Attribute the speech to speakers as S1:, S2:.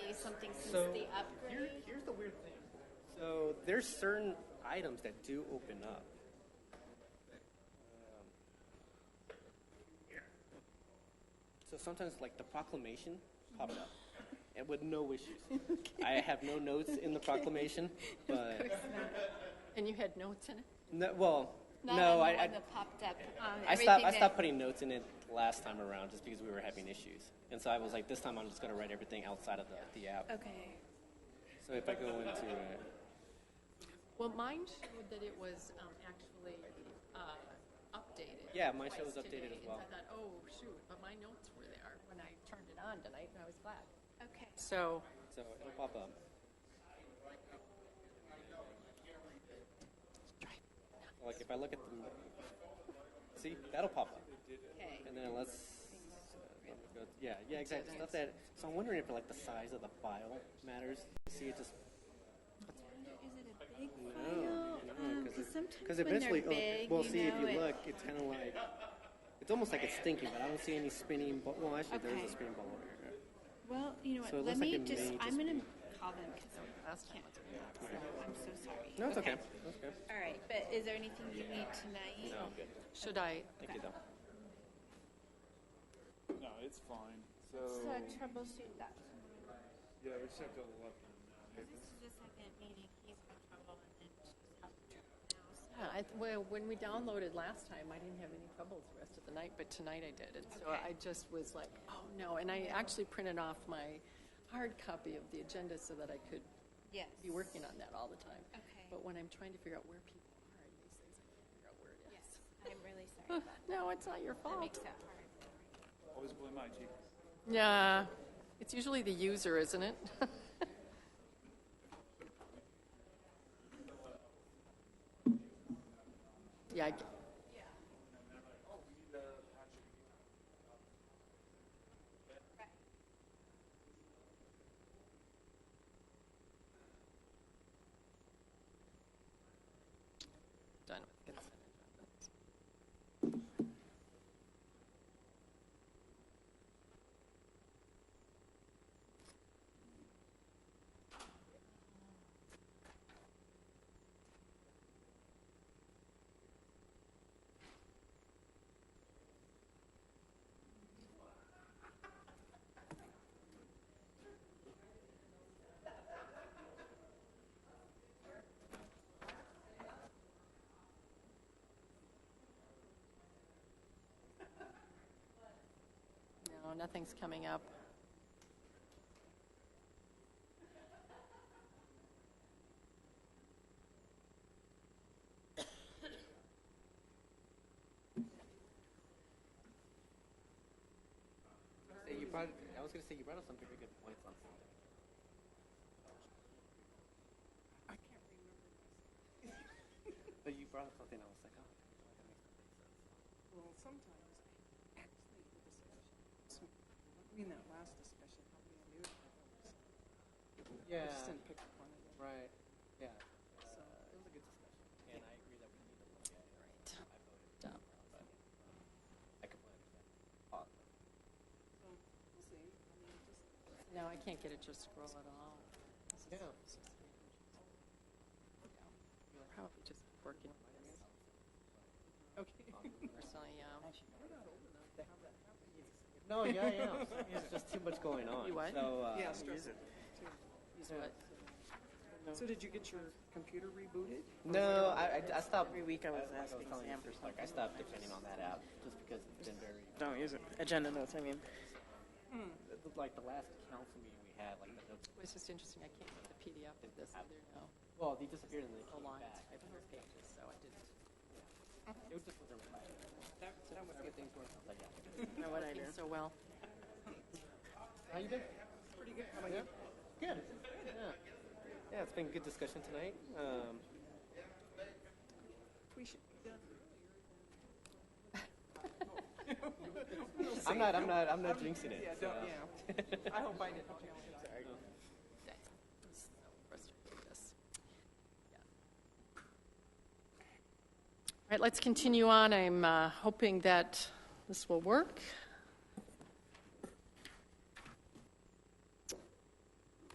S1: something since
S2: So
S1: the
S2: here,
S1: upgrade?
S2: here's the weird thing. So there's certain items that do open up. Um, So sometimes like the proclamation popped up, and with no issues. I have no notes in the proclamation, but
S1: And you had notes in it?
S2: no, well,
S1: Not on
S2: no,
S1: the
S2: I, I,
S1: one that popped up on
S2: I stopped. I
S1: everything
S2: stopped
S1: that-
S2: putting notes in it last time around just because we were having issues, and so I was like, this time I'm just gonna write everything outside of the, the app.
S1: Okay.
S2: So if I go into uh,
S3: Well, mine showed that it was um, actually uh, updated.
S2: Yeah, mine shows
S3: twice
S2: updated as
S3: today,
S2: well.
S3: And I thought, oh, shoot, but my notes were there when I turned it on tonight, and I was glad.
S1: Okay.
S3: So,
S2: So it'll pop up. Like if I look at the, see that'll pop up,
S1: Okay.
S2: and then let's, uh, go, yeah, yeah, exactly. Stuff that. So I'm wondering if like the size of the file matters. See, it just
S1: Is it a big
S2: no,
S1: file?
S2: no,
S1: Because Um,
S2: because
S1: sometimes when they're
S2: eventually, oh,
S1: big,
S2: well,
S1: you
S2: see if
S1: know,
S2: you
S1: it-
S2: look, it's kind of like, it's almost like it's stinking, but I don't see any spinning. Bo- well, actually, there's
S1: Okay.
S2: a spinning ball over here.
S1: Well, you know what,
S2: So it
S1: let
S2: looks like
S1: me
S2: it
S1: just,
S2: may
S1: I'm
S2: just
S1: gonna call them because I can't do that, so I'm so sorry.
S2: No, it's okay. That's okay.
S1: All right, but is there anything you need tonight?
S2: No, I'm good.
S3: should I?
S2: Thank you though.
S4: No, it's fine. So,
S1: So troubleshoot that.
S4: yeah, we just have to look.
S1: This is the second meeting, he's had trouble and then she's having trouble now, so.
S3: Yeah, I, well, when we downloaded last time, I didn't have any troubles the rest of the night, but tonight I did. And so
S1: Okay.
S3: I just was like, oh, no. And I actually printed off my hard copy of the agenda so that I could
S1: Yes.
S3: be working on that all the time.
S1: Okay.
S3: But when I'm trying to figure out where people are in these things, I can't figure out where it is.
S1: Yes, I'm really sorry.
S3: Uh, No, it's not your
S1: That makes
S3: fault.
S1: it hard.
S4: Always blame IT.
S3: Yeah, it's usually the user, isn't it? Yeah, I g- done with consent agenda. No, nothing's coming up.
S2: Say you brought. I was gonna say you brought up some very good points on something. I can't remember. but you brought up something. I was like, oh, that makes perfect sense.
S5: Well, sometimes I actually the discussion. So, I mean, that last discussion, how many I knew. I just didn't pick up on it. yet.
S2: Right. Yeah.
S5: So,
S2: It was a good discussion, and I agree that we need to look at it. Right. I voted
S3: Dumb.
S2: but I completely understand. Uh,
S5: so we'll see. I mean, just
S3: No, I can't get it to scroll at all. This is-
S2: Yeah.
S3: this is really interesting. Yeah. Probably just working with this.
S5: okay.
S3: personally, yeah.
S2: No, yeah, yeah. There's just too much going on.
S3: You what?
S2: So, uh,
S5: Yeah, stress it.
S3: Use what?
S5: So did you get your computer rebooted?
S2: No, I, I, I stopped.
S6: Every week I was
S2: like
S6: asking
S2: telling you,
S6: Sam for
S2: just Like I stopped depending on that app just because it's been very.
S6: Don't use it. Agenda notes, I mean.
S2: Like the last council meeting we had, like the
S3: It was just interesting, I can't get the PDF of this either now.
S2: Well, they disappeared and they
S3: A
S2: came
S3: line,
S2: back.
S3: five hundred pages, so I didn't.
S2: It was just wasn't reliable. That, that was good things working. Like, yeah.
S6: Know what I do.
S3: Working so well.
S2: How you doing? Pretty good. How about you? Good. Yeah. Yeah, it's been a good discussion tonight. Um,
S5: We should be done
S2: I'm not. I'm not. I'm not jinxing it.
S5: Yeah,
S2: so.
S5: don't, yeah. I hope I didn't. Sorry.
S3: That was so frustrating, this. Yeah. All right, let's continue on. I'm uh, hoping that this will work.